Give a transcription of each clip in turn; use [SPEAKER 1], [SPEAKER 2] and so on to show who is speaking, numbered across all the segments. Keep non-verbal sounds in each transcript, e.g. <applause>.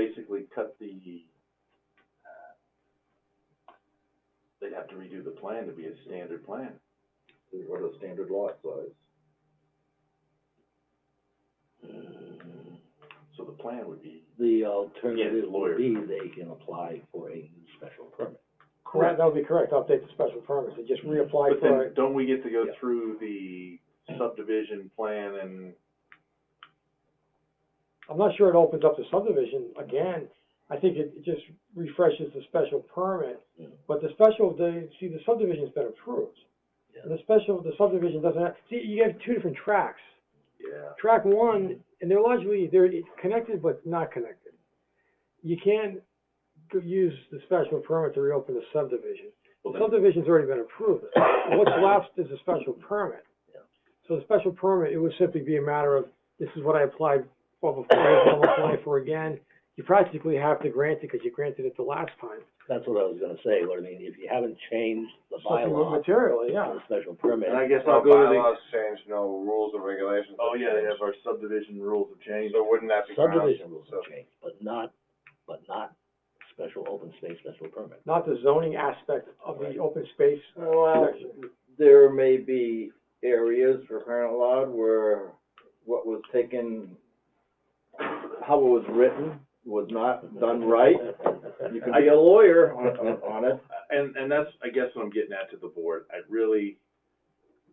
[SPEAKER 1] basically cut the, uh, they'd have to redo the plan to be a standard plan.
[SPEAKER 2] What a standard lot size.
[SPEAKER 1] So the plan would be,
[SPEAKER 3] The alternative
[SPEAKER 1] Yes, lawyer.
[SPEAKER 3] would be they can apply for a new special permit.
[SPEAKER 4] Correct, that would be correct, update the special permit, so just reapply
[SPEAKER 1] but
[SPEAKER 4] for
[SPEAKER 1] then
[SPEAKER 4] it.
[SPEAKER 1] don't we get to go
[SPEAKER 3] Yeah.
[SPEAKER 1] through the subdivision plan and,
[SPEAKER 4] I'm not sure it opens up the subdivision again, I think it it just refreshes the special permit.
[SPEAKER 3] Yeah.
[SPEAKER 1] Mm-hmm.
[SPEAKER 4] But the special, the, see, the subdivision's been approved.
[SPEAKER 3] Yeah.
[SPEAKER 4] The special, the subdivision doesn't have, see, you have two different tracks.
[SPEAKER 1] yeah,
[SPEAKER 4] Track one,
[SPEAKER 1] Mm-hmm.
[SPEAKER 4] and they're largely, they're connected but not connected. You can't go- use the special permit to reopen the subdivision.
[SPEAKER 1] well, then,
[SPEAKER 4] Subdivision's already been approved.
[SPEAKER 3] <coughs>
[SPEAKER 4] What's left is a special permit.
[SPEAKER 3] Yeah.
[SPEAKER 4] So the special permit, it would simply be a matter of, this is what I applied for before, I'm applying for again. You practically have to grant it because you granted it the last time.
[SPEAKER 3] That's what I was gonna say, what I mean, if you haven't changed the
[SPEAKER 4] Something
[SPEAKER 3] bylaw for
[SPEAKER 4] Materially, yeah.
[SPEAKER 3] the special permit,
[SPEAKER 1] and I guess
[SPEAKER 2] No
[SPEAKER 1] I'll go to the,
[SPEAKER 2] bylaws changed, no rules and regulations.
[SPEAKER 1] oh, yeah, they
[SPEAKER 2] changed.
[SPEAKER 1] have our subdivision rules of change.
[SPEAKER 2] So wouldn't that be grounds?
[SPEAKER 3] subdivision rules
[SPEAKER 2] So-
[SPEAKER 3] have changed, but not, but not special open space special permit.
[SPEAKER 4] Not the zoning aspect of the open space.
[SPEAKER 5] Well, there may be areas for crying out loud where what was taken, how it was written was not done right. You could be a lawyer on, on- on it.
[SPEAKER 1] Uh, and and that's I guess what I'm getting at to the board. I really,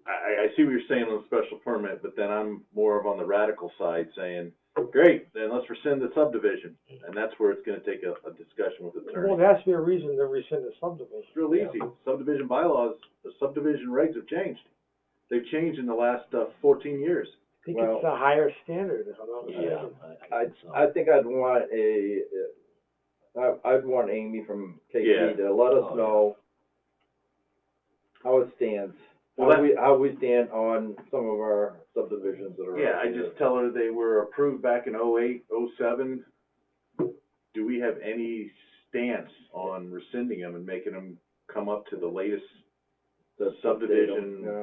[SPEAKER 1] I, I see what you're saying on the special permit, but then I'm more of on the radical side saying, great, then let's rescind the subdivision, and that's where it's going to take a, a discussion with the
[SPEAKER 4] Well,
[SPEAKER 1] attorney.
[SPEAKER 4] there has to be a reason to rescind the subdivision.
[SPEAKER 1] It's real easy. Subdivision bylaws, the subdivision regs have changed. They've changed in the last uh, 14 years.
[SPEAKER 4] I think
[SPEAKER 5] Well-
[SPEAKER 4] it's a higher standard, if I'm not
[SPEAKER 3] Yeah,
[SPEAKER 4] mistaken.
[SPEAKER 3] I, I
[SPEAKER 5] I,
[SPEAKER 3] think so.
[SPEAKER 5] I think I'd want a, uh, I, I'd want Amy from
[SPEAKER 1] Yeah.
[SPEAKER 5] KP to let
[SPEAKER 2] Oh,
[SPEAKER 5] us know how it stands,
[SPEAKER 1] Well,
[SPEAKER 5] how
[SPEAKER 1] that-
[SPEAKER 5] we, how we stand on some of our subdivisions that are.
[SPEAKER 1] Yeah, I just tell her they were approved back in 08, 07. Do we have any stance on rescinding them and making them come up to the latest
[SPEAKER 5] The
[SPEAKER 1] subdivision-
[SPEAKER 5] Yeah.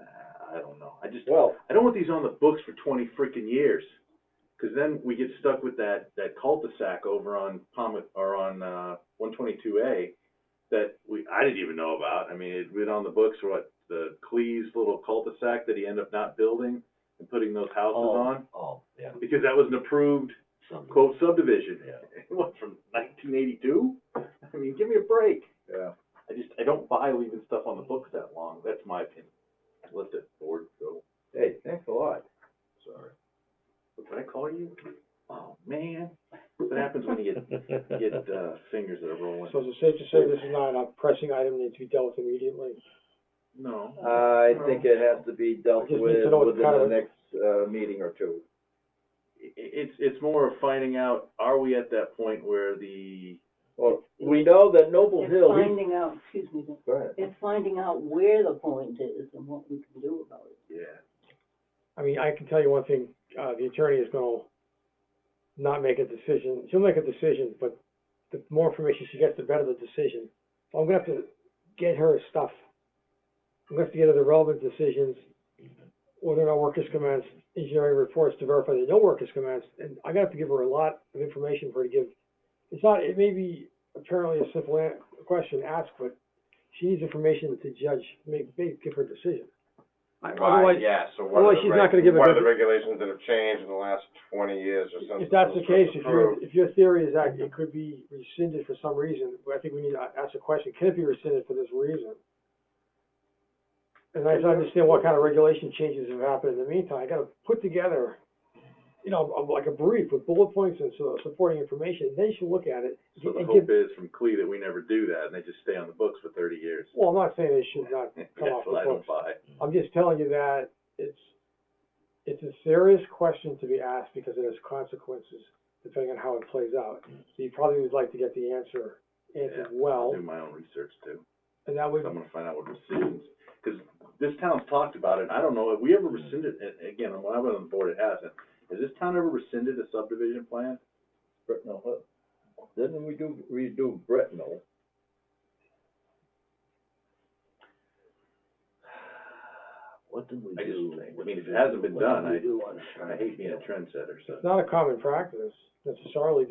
[SPEAKER 1] Uh, I don't know. I just,
[SPEAKER 5] Well,
[SPEAKER 1] I don't want these on the books for twenty frickin' years. Cause then we get stuck with that, that cul-de-sac over on Palmet, or on, uh, one twenty-two A that we, I didn't even know about. I mean, it'd been on the books for what, the Cleese little cul-de-sac that he ended up not building and putting those houses
[SPEAKER 3] Oh,
[SPEAKER 1] on?
[SPEAKER 3] Oh, yeah,
[SPEAKER 1] Because that was an approved
[SPEAKER 3] some,
[SPEAKER 1] quote subdivision. <laughs>
[SPEAKER 3] yeah.
[SPEAKER 1] What, from nineteen eighty-two? I mean, give me a break.
[SPEAKER 5] yeah,
[SPEAKER 1] I just, I don't buy leaving stuff on the books that long. That's my opinion. Let the board go.
[SPEAKER 5] hey, thanks a lot.
[SPEAKER 3] Sorry.
[SPEAKER 1] What Did I call you? Oh, man. What happens when you
[SPEAKER 3] <laughs>
[SPEAKER 1] get, get, uh, fingers that are rolling?
[SPEAKER 4] So is it safe to say this is not a pressing item that needs to be dealt with immediately?
[SPEAKER 1] No.
[SPEAKER 5] I think it has to be dealt
[SPEAKER 4] I just
[SPEAKER 5] with
[SPEAKER 4] need to know what
[SPEAKER 5] within
[SPEAKER 4] kind
[SPEAKER 5] the
[SPEAKER 4] of-
[SPEAKER 5] next, uh, meeting or two.
[SPEAKER 1] I- it's, it's more of finding out, are we at that point where the,
[SPEAKER 5] Well, we know that Noble
[SPEAKER 6] It's
[SPEAKER 5] Hill, he-
[SPEAKER 6] finding out, excuse me,
[SPEAKER 5] go ahead.
[SPEAKER 6] it's finding out where the point is and what we can do about it.
[SPEAKER 1] yeah.
[SPEAKER 4] I mean, I can tell you one thing, uh, the attorney is gonna not make a decision, she'll make a decision, but the more information she gets, the better the decision. So I'm gonna have to get her stuff, I'm gonna have to get her the relevant decisions, whether or not work is commenced, engineering reports to verify that no work is commenced, and I'm gonna have to give her a lot of information for her to give. It's not, it may be apparently a simple a- question asked, but she needs information to judge, make, make, give her decision. I-
[SPEAKER 2] Right,
[SPEAKER 4] Otherwise,
[SPEAKER 2] yeah, so what are
[SPEAKER 4] otherwise
[SPEAKER 2] the
[SPEAKER 4] she's
[SPEAKER 2] reg-
[SPEAKER 4] not gonna give a
[SPEAKER 2] What are
[SPEAKER 4] good-
[SPEAKER 2] the regulations that have changed in the last twenty years or something?
[SPEAKER 4] If that's the case, if your,
[SPEAKER 2] approved?
[SPEAKER 4] if your theory is that it could be rescinded for some reason, but I think we need to ask the question, can it be rescinded for this reason? And I just understand what kind of regulation changes have happened in the meantime, I gotta put together, you know, a- like a brief with bullet points and so supporting information, then you should look at it.
[SPEAKER 1] So the
[SPEAKER 4] and
[SPEAKER 1] hope
[SPEAKER 4] give-
[SPEAKER 1] is from Clee that we never do that and they just stay on the books for thirty years.
[SPEAKER 4] Well, I'm not saying it should not
[SPEAKER 1] <laughs> That's
[SPEAKER 4] come off the
[SPEAKER 1] what I don't
[SPEAKER 4] books,
[SPEAKER 1] buy.
[SPEAKER 4] I'm just telling you that it's, it's a serious question to be asked because it has consequences depending on how it plays out. So you probably would like to get the answer answered
[SPEAKER 1] Yeah, I'll
[SPEAKER 4] well,
[SPEAKER 1] do my own research too.
[SPEAKER 4] and that would,
[SPEAKER 1] I'm gonna find out what rescissions, because this town's talked about it, I don't know, have we ever rescinded, a- again, when I was on the board, it hasn't. Has this town ever rescinded a subdivision plan?
[SPEAKER 5] Britnell Hill. Didn't we do, redo Britnell?
[SPEAKER 3] What what did we
[SPEAKER 1] I just-
[SPEAKER 3] do?
[SPEAKER 1] I
[SPEAKER 3] What
[SPEAKER 1] mean,
[SPEAKER 3] did
[SPEAKER 1] it
[SPEAKER 3] we-
[SPEAKER 1] hasn't been
[SPEAKER 3] what did
[SPEAKER 1] done.
[SPEAKER 3] we
[SPEAKER 1] I-
[SPEAKER 3] do on
[SPEAKER 1] I hate being a trendsetter, so.
[SPEAKER 4] It's not a common practice necessarily